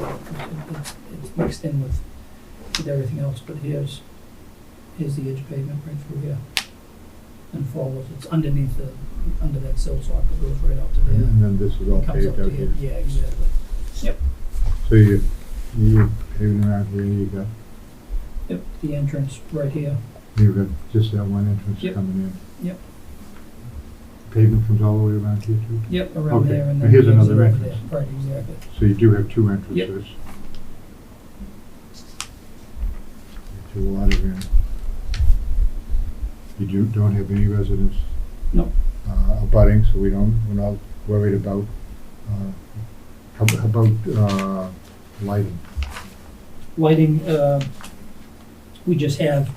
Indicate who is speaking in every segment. Speaker 1: It's- It's mixed in with, with everything else, but here's, here's the edge pavement right through here. And follows, it's underneath the, under that sill sock that goes right up to there.
Speaker 2: And then this is all
Speaker 1: Comes up
Speaker 2: Mm-hmm. paved
Speaker 1: to
Speaker 2: out
Speaker 1: here,
Speaker 2: here.
Speaker 1: yeah, exactly.
Speaker 2: So you, you paving around here, you got,
Speaker 1: Yep, the entrance right here,
Speaker 2: you got just that one entrance
Speaker 1: Yep.
Speaker 2: coming in.
Speaker 1: Yep.
Speaker 2: Pavement comes all the way around here too?
Speaker 1: yep, around
Speaker 2: Okay,
Speaker 1: there and
Speaker 2: but
Speaker 1: then.
Speaker 2: here's
Speaker 1: the exit
Speaker 2: another
Speaker 1: over there.
Speaker 2: entrance.
Speaker 1: Right, exactly.
Speaker 2: So you do have two entrances. To a lot of room. You do, don't have any residents?
Speaker 1: No.
Speaker 2: Uh, abutting, so we don't, we're not worried about, uh, how how about, uh, lighting?
Speaker 1: Lighting, uh, we just have,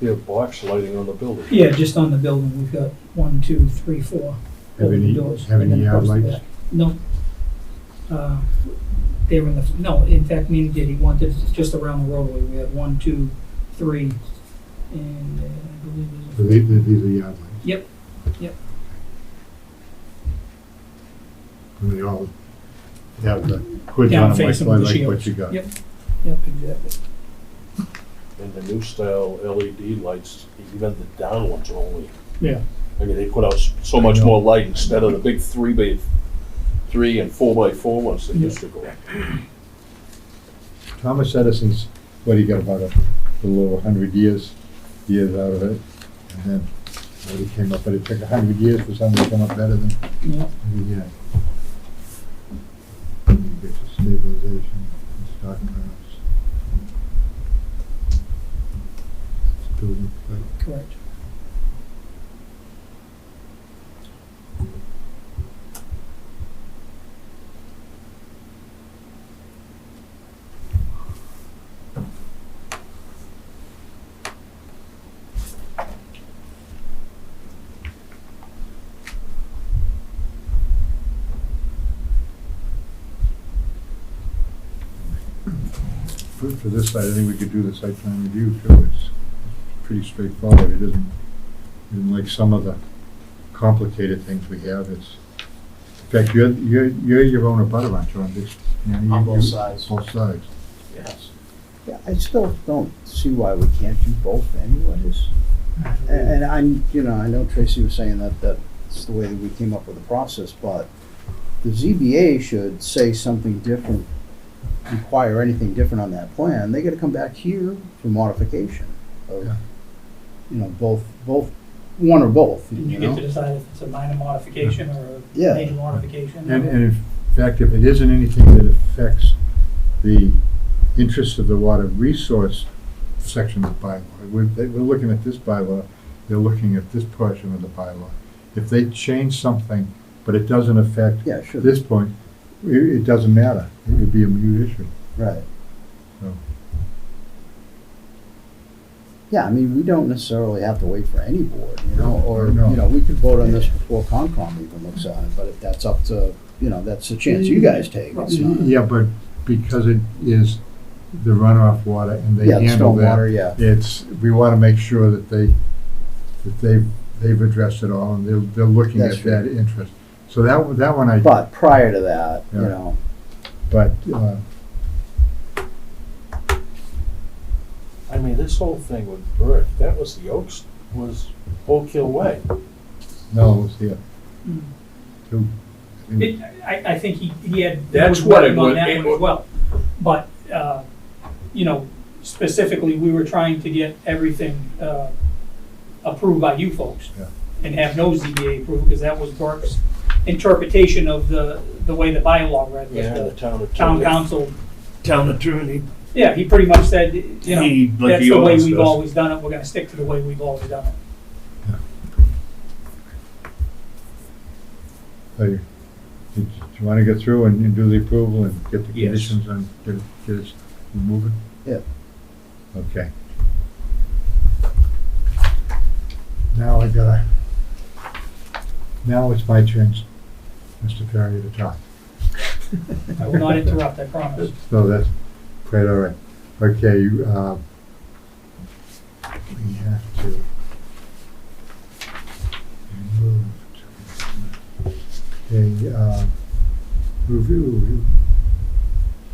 Speaker 3: You have box lighting on the building.
Speaker 1: yeah, just on the building, we've got one, two, three, four
Speaker 2: Have
Speaker 1: open
Speaker 2: any,
Speaker 1: doors.
Speaker 2: have
Speaker 1: and
Speaker 2: any
Speaker 1: then
Speaker 2: yard
Speaker 1: across the
Speaker 2: lights?
Speaker 1: back. No. Uh, They were in the, no, in fact, Manny did, he wanted just around the roadway, we had one, two, three, and uh, I believe
Speaker 2: So
Speaker 1: there's a.
Speaker 2: these, these are yard lights?
Speaker 1: Yep, yep.
Speaker 2: And they all have the hoods
Speaker 1: down
Speaker 2: on them, like,
Speaker 1: facing with the
Speaker 2: like what
Speaker 1: shields.
Speaker 2: you got.
Speaker 1: Yep, yep, exactly.
Speaker 3: And the new style LED lights, even the down ones are only,
Speaker 1: Yeah.
Speaker 3: I mean, they put out s- so much more light instead of the big three by, three and four by four ones that
Speaker 1: Yeah.
Speaker 3: used to go.
Speaker 2: Thomas Edison's, what he got about a little over hundred years, years out of it, and then nobody came up, but it took a hundred years for something to come up better than,
Speaker 1: Yeah,
Speaker 2: yeah. You get to stabilization, stock cars. Building, like,
Speaker 1: correct.
Speaker 2: For, for this side, I think we could do the site plan review too, it's pretty straightforward, it isn't, isn't like some of the complicated things we have, it's, in fact, you're, you're, you're your own abutter, aren't you, on this? you know,
Speaker 4: On
Speaker 2: you-
Speaker 4: both
Speaker 2: you-
Speaker 4: sides.
Speaker 2: Both sides,
Speaker 4: Yes.
Speaker 5: Yeah, I still don't see why we can't do both anyways. A-
Speaker 2: Mm-hmm.
Speaker 5: And I'm, you know, I know Tracy was saying that that's the way that we came up with the process, but the ZBA should say something different, require anything different on that plan. They gotta come back here for modification of,
Speaker 2: Yeah.
Speaker 5: you know, both, both, one or both,
Speaker 1: And you
Speaker 5: you
Speaker 1: get to
Speaker 5: know?
Speaker 1: decide if it's a minor modification or a
Speaker 5: Yeah.
Speaker 1: major modification.
Speaker 2: and, and in fact, if it isn't anything that affects the interests of the water resource section of the bylaw, we're, they- we're looking at this bylaw, they're looking at this portion of the bylaw. If they change something, but it doesn't affect
Speaker 5: Yeah,
Speaker 2: At
Speaker 5: sure,
Speaker 2: this point, it, it doesn't matter. It would be a mute issue.
Speaker 5: right.
Speaker 2: No.
Speaker 5: Yeah, I mean, we don't necessarily have to wait for any board, you know, or,
Speaker 2: No.
Speaker 5: you know, we could vote on this before Concom even looks at it, but if that's up to, you know, that's a chance you guys take, it's not.
Speaker 2: Yeah, but because it is the runoff water and they
Speaker 5: Yeah, the
Speaker 2: handle that,
Speaker 5: stormwater, yeah,
Speaker 2: it's, we want to make sure that they, that they, they've addressed it all and they're, they're looking
Speaker 5: That's
Speaker 2: at that interest. So that, one- that one I,
Speaker 5: but prior to that, you
Speaker 2: Yeah.
Speaker 5: know,
Speaker 2: but, uh,
Speaker 3: I mean, this whole thing with Burke, that was the Oaks, was Oak Hill Way.
Speaker 2: no, it's here.
Speaker 1: Mm.
Speaker 2: Two. I think-
Speaker 1: It, I, I think he, he had. he
Speaker 3: That's
Speaker 1: was
Speaker 3: what
Speaker 1: working
Speaker 3: it
Speaker 1: On
Speaker 3: was-
Speaker 1: that
Speaker 3: it
Speaker 1: one as
Speaker 3: was-
Speaker 1: well, but, uh, you know, specifically, we were trying to get everything, uh, approved by you folks.
Speaker 2: Yeah.
Speaker 1: And have no ZBA approved, because that was Burke's interpretation of the, the way the bylaw read,
Speaker 3: Yeah, the
Speaker 1: that
Speaker 3: town
Speaker 1: the
Speaker 3: of.
Speaker 1: town council,
Speaker 6: town attorney,
Speaker 1: yeah, he pretty much said, you know,
Speaker 6: he, like
Speaker 1: that's
Speaker 6: he
Speaker 1: the way
Speaker 6: always
Speaker 1: we've
Speaker 6: does.
Speaker 1: always done it, we're gonna stick to the way we've always done it.
Speaker 2: So you, do you want to get through and and do the approval and get the
Speaker 6: Yes.
Speaker 2: conditions on, get it, get it moving?
Speaker 5: Yeah.
Speaker 2: Okay. Now I gotta, now it's my turn, Mr. Perry, to talk.
Speaker 1: I will not interrupt, I promise.
Speaker 2: No, that's quite all right. Okay, you, uh, we have to move to, okay, uh, review,